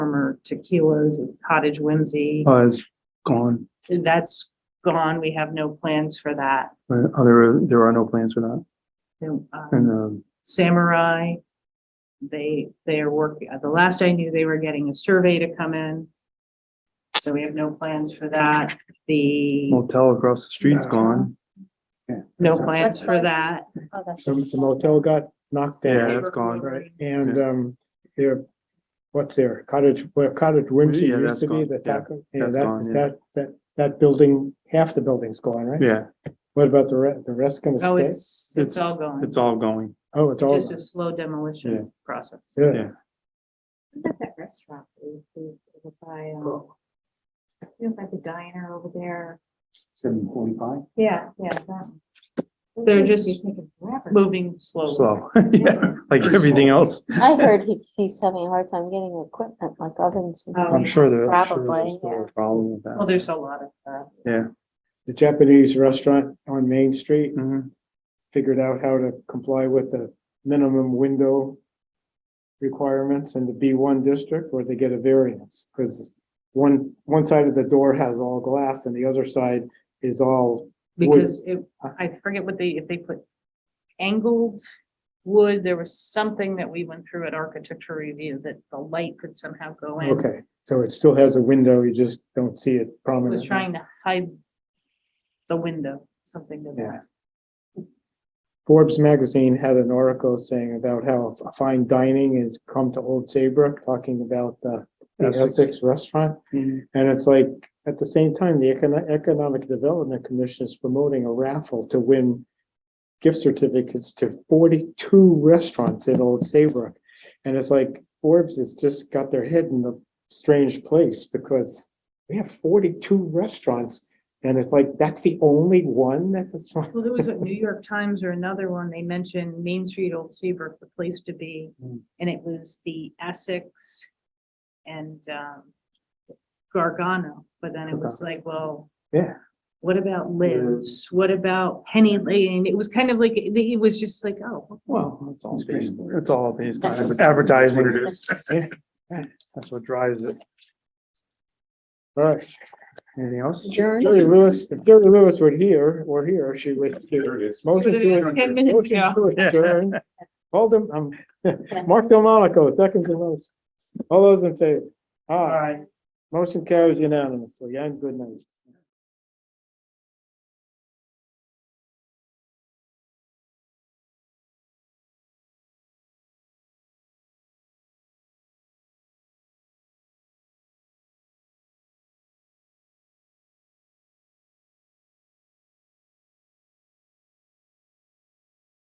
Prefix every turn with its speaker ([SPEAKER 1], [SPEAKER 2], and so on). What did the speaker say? [SPEAKER 1] former tequilas and cottage whimsy.
[SPEAKER 2] Uh, it's gone.
[SPEAKER 1] That's gone. We have no plans for that.
[SPEAKER 2] Uh, There, are- there are no plans for that.
[SPEAKER 1] And, um,
[SPEAKER 2] And, um,
[SPEAKER 1] Samurai, they, they are working, the last I knew, they were getting a survey to come in. So we have no plans for that. The,
[SPEAKER 2] motel across the street's gone.
[SPEAKER 1] no plans for that.
[SPEAKER 3] Oh, that's
[SPEAKER 4] Some,
[SPEAKER 3] just-
[SPEAKER 4] the motel got knocked
[SPEAKER 2] Yeah,
[SPEAKER 4] down,
[SPEAKER 2] that's gone.
[SPEAKER 4] right, and, um, their, what's their cottage, where cottage whimsy
[SPEAKER 2] Yeah,
[SPEAKER 4] used
[SPEAKER 2] that's
[SPEAKER 4] to be,
[SPEAKER 2] gone.
[SPEAKER 4] the
[SPEAKER 2] Yeah,
[SPEAKER 4] taco. Yeah,
[SPEAKER 2] that's
[SPEAKER 4] that,
[SPEAKER 2] gone, yeah.
[SPEAKER 4] that, that, that building, half the building's gone, right?
[SPEAKER 2] Yeah,
[SPEAKER 4] What about the re, the rest gonna
[SPEAKER 1] Oh,
[SPEAKER 4] stay?
[SPEAKER 1] it's, it's all gone.
[SPEAKER 2] it's all going.
[SPEAKER 4] Oh, it's all,
[SPEAKER 1] Just a slow
[SPEAKER 2] Yeah.
[SPEAKER 1] demolition process.
[SPEAKER 4] yeah,
[SPEAKER 2] Yeah.
[SPEAKER 3] What about that restaurant that we approved over by, um, you know, by the diner over there?
[SPEAKER 2] Seven forty-five?
[SPEAKER 3] Yeah, yeah. that one. It
[SPEAKER 1] They're
[SPEAKER 3] seems to be
[SPEAKER 1] just
[SPEAKER 3] taking forever.
[SPEAKER 1] Moving slowly.
[SPEAKER 2] Slow, yeah, like everything else.
[SPEAKER 5] I heard he, he's having a hard time getting equipment like ovens. and-
[SPEAKER 1] Oh,
[SPEAKER 2] I'm sure there, I'm sure
[SPEAKER 5] Probably,
[SPEAKER 2] there's still
[SPEAKER 5] yeah.
[SPEAKER 2] a problem with
[SPEAKER 1] Well,
[SPEAKER 2] that.
[SPEAKER 1] there's a lot of that.
[SPEAKER 2] Yeah.
[SPEAKER 4] the Japanese restaurant on Main Street
[SPEAKER 2] Mhm.
[SPEAKER 4] figured out how to comply with the minimum window requirements in the B one district, where they get a variance, because one, one side of the door has all glass and the other side is all Wood.
[SPEAKER 1] Because it, I forget what they, if they put angled wood, there was something that we went through at architecture review that the light could somehow go in.
[SPEAKER 4] Okay, so it still has a window, you just don't see it prominently.
[SPEAKER 1] was trying to hide the window, something to
[SPEAKER 4] Yeah.
[SPEAKER 1] that.
[SPEAKER 4] Forbes magazine had an article saying about how f- fine dining has come to Old Saybrook, talking about the the
[SPEAKER 2] Essex.
[SPEAKER 4] Essex restaurant.
[SPEAKER 2] Mhm.
[SPEAKER 4] And it's like, at the same time, the Econo- Economic Development Commission is promoting a raffle to win gift certificates to forty-two restaurants in Old Saybrook. And it's like Forbes has just got their head in a strange place because we have forty-two restaurants. And it's like, that's the only one that's.
[SPEAKER 1] Well, there was a New York Times or another one, they mentioned Main Street, Old Seabrook, the place to be.
[SPEAKER 4] Hmm.
[SPEAKER 2] Mm.
[SPEAKER 1] And it was the Essex and um, Gargano, but then it was like, well,
[SPEAKER 4] Yeah.
[SPEAKER 1] what about Liz? What about Penny Lane? It was kind of like, it it was just like, oh,
[SPEAKER 2] Well, it's all
[SPEAKER 6] It's
[SPEAKER 2] based,
[SPEAKER 6] based-
[SPEAKER 2] it's all based
[SPEAKER 5] That's
[SPEAKER 2] on advertising.
[SPEAKER 6] That's what it
[SPEAKER 2] Yeah, That's what drives it.
[SPEAKER 4] All right.
[SPEAKER 2] Anything else?
[SPEAKER 5] Adjourn.
[SPEAKER 4] Jerry Lewis, if Jerry Lewis were here, or here, she would.
[SPEAKER 6] There it is.
[SPEAKER 4] Motion
[SPEAKER 1] But it is
[SPEAKER 4] to.
[SPEAKER 1] 10 minutes
[SPEAKER 4] motion
[SPEAKER 1] now.
[SPEAKER 4] to adjourn. Alden, um, Mark Delmonico, second to most. All those in favor? Aye. Motion carries unanimously. And good night.